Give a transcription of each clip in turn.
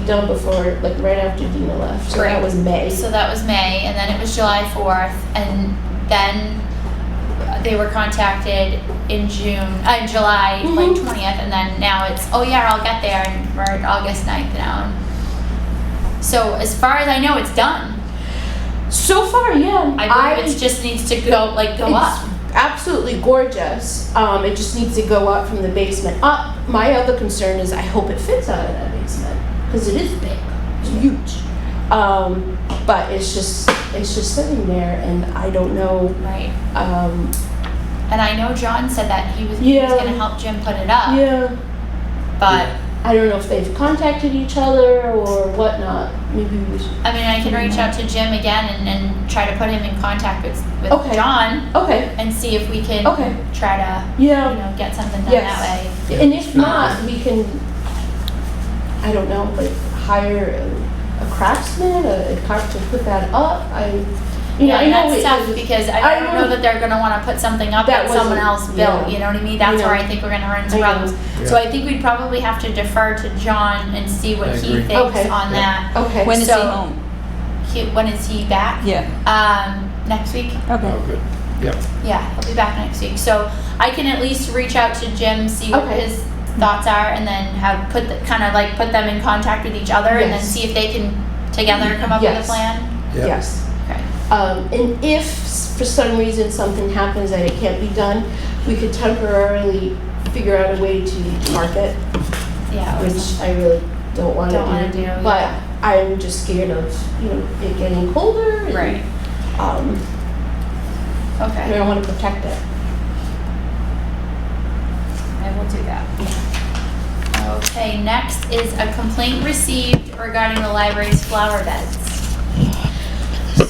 done before, like right after Dina left. So that Right. was May. So that was May, and then it was July 4th, and then they were contacted in June, uh, in July, like Mhm. 20th, and then now it's, oh yeah, I'll get there, and we're at August 9th now. So as far as I know, it's done. So far, yeah. I believe it just needs to go, like, go it's up. Absolutely gorgeous. Um, it just needs to go up from the basement up. My other concern is I hope it fits out of that basement because it is big, it's huge. Um, but it's just it's just sitting there, and I don't know. Right. Um, And I know John said that he was, he was Yeah. gonna help Jim put it up. yeah, But, I don't know if they've contacted each other or whatnot. Maybe we should. I mean, I can reach out to Jim again and, and try to put him in contact with, with Okay. John Okay. and see if we can Okay. try to you Yeah. know, get something done Yes. that way. And if not, we can, I don't know, like hire a, a craftsman, a, a craft to put that up. I, you know, Yeah, I know that's it- tough because I, I don't know- know that they're gonna wanna put something up That that someone wasn't- else yeah. built, you know what I mean? I That's know. where I think we're gonna run into I know. problems. Oh, So I think we'd probably have to defer to John and see what I he agree. thinks Okay. on that. Okay. When is he So- home? He, when is he back? Yeah, Um, next week? okay. Oh, good. Yep. Yeah, he'll be back next week. So I can at least reach out to Jim, see what Okay. his thoughts are, and then have put the, kind of like put them in contact with each other, and then Yes. see if they can together come up with Yes. a plan. Yep. Yes. Okay. Um, and if s- for some reason something happens that it can't be done, we could temporarily figure out a way to mark it, Yeah. or which I really don't want Don't wanna to do, do. But yeah. I'm just scared of, you know, it getting colder. and, Right. Um, Okay. and I want to protect it. I will do that. Okay, next is a complaint received regarding the library's flower beds.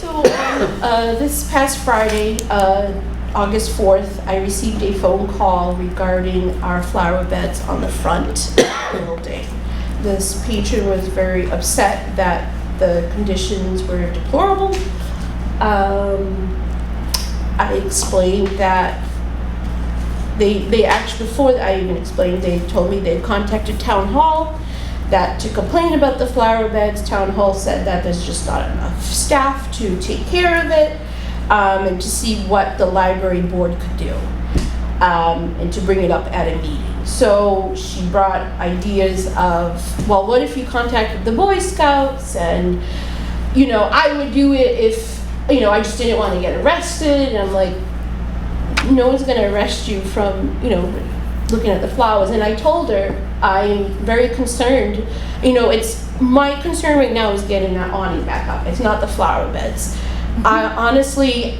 So, um, uh, this past Friday, uh, August 4th, I received a phone call regarding our flower beds on the front building. This patron was very upset that the conditions were deplorable. Um, I explained that they, they actually, before I even explained, they told me they contacted town hall that to complain about the flower beds, town hall said that there's just not enough staff to take care of it um, and to see what the library board could do um, and to bring it up at a meeting. So she brought ideas of, well, what if you contacted the Boy Scouts and, you know, I would do it if, you know, I just didn't want to get arrested. And I'm like, no one's going to arrest you from, you know, looking at the flowers. And I told her, I'm very concerned. You know, it's my concern right now is getting that awning back up. It's not the flower beds. I honestly,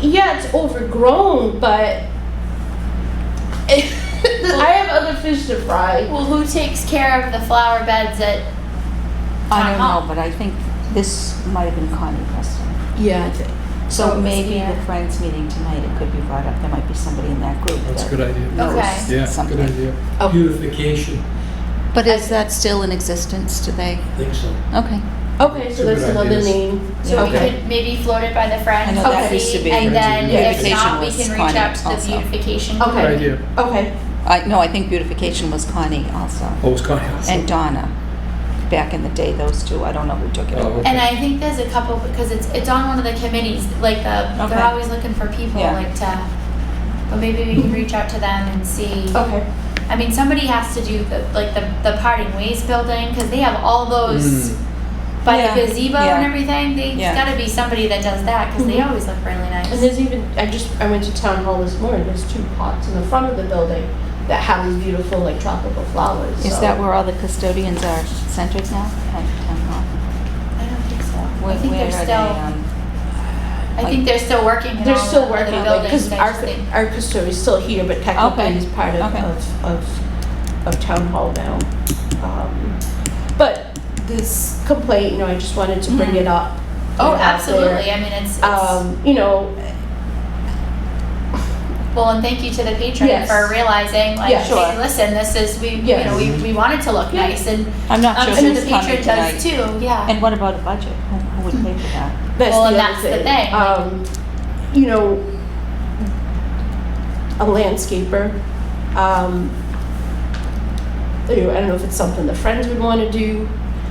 yeah, it's overgrown, but I have other fish to fry. Well, who takes care of the flower beds at, I don't Uh-huh. know, but I think this might have been Connie Preston. Yeah, I think. So it So was maybe here. the Friends meeting tonight, it could be brought up. There might be somebody in that group That's a good that idea. Okay. knows Yeah, good Oh, something. idea. Oh. Beautification, But is that still in existence today? I think so. Okay. Okay, so Two that's good another ideas. name. so we Okay. could maybe float it by the I friends, know that and used to see, be and then if beautification not, we was can reach Connie out to the also. beautification. Okay. Good idea. Okay. I, no, I think beautification was Connie also, Oh, it's Connie. also. and Donna. Back in the day, those two, I don't know who took it Oh, over. okay. And I think there's a couple, because it's, it's on one of the committees, like the, Okay. they're always looking for people, Yeah. like to, but maybe we can reach out to them and see. Okay. I mean, somebody has to do the, like the, the parting ways building because they have all those Mm. by Yeah, the gazebo and yeah. everything. There's Yeah. got to be somebody that does that because they Mhm. always look really And nice. there's even I just I went to town hall this morning. There's two pots in the front of the building that have these beautiful like tropical flowers. Is so- that where all the custodians are centered now? At town hall? I don't think so. I Where- think where they're are still. they, um, I think they're still working. in They're all still the other working on it buildings. because I our just think- our custodian is still here, but technically Okay. he's part of, Okay. of, of of town hall now. Um, but this complaint, you know, I just wanted to bring it Mm-hmm. up. get Oh, it out there. absolutely. I mean, it's, it's Um, you know, well, and thank you to the patron Yes. for realizing, like, Yeah, hey, sure. listen, this is we, Yes. you know, we, we want it to look Yeah. nice, Um, and I'm not I'm sure sure the who's patron coming does tonight. too. Yeah. And what about a budget? Who who would pay for that? that's Well, the and other that's the thing. thing, like- Um, you know, a landscaper. Um, you know, I don't know if it's something the friends would want to do.